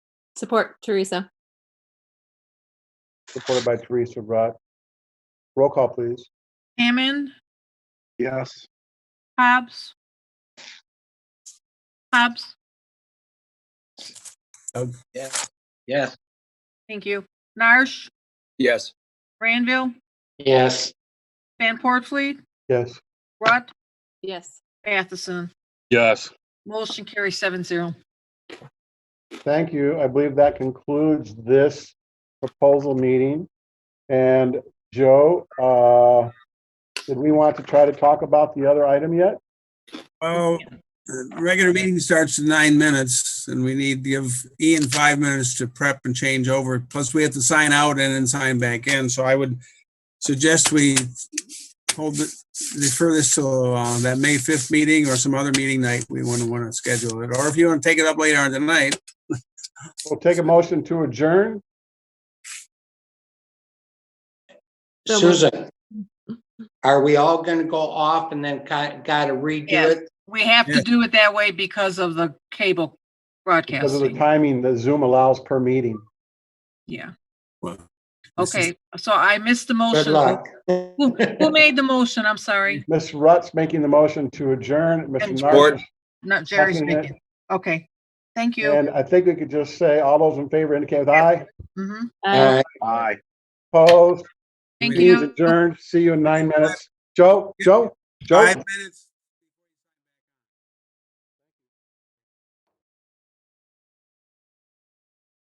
Support Teresa. supported by Teresa Rutt. Roll call, please. Hammond, Yes. Hobbs. Hobbs, Oh, yes. Yes. thank you. Narsh, Yes. Ranville, yes, Van Portfleet, Yes. Rutt, Yes. Matheson. Yes. Motion carries seven zero. Thank you. I believe that concludes this proposal meeting. And Joe, uh, did we want to try to talk about the other item yet? Oh, the regular meeting starts in nine minutes and we need to give Ian five minutes to prep and change over. Plus, we have to sign out and then sign back in. So I would suggest we hold it, defer this till uh, that May 5th meeting or some other meeting night. We wouldn't want to schedule it. Or if you want to take it up later on tonight, We'll take a motion to adjourn. So- Susan. Are we all gonna go off and then got, gotta redo Yeah. it? We have Yeah. to do it that way because of the cable Because of the broadcasting. timing that Zoom allows per meeting. Yeah, well. this is- okay. So I missed the Good motion. luck. Who who made the motion? I'm sorry. Ms. Rutt's making the motion to adjourn. Mr. Support. Narcisse- Not Jerry's Second it. making. Okay, thank you. And I think we could just say, all those in favor indicate with aye. Mhm. Uh, Uh, Aye. Opposed? Thank Meeting's you. adjourned. See you in nine minutes. Joe, Joe, Joe? Five minutes.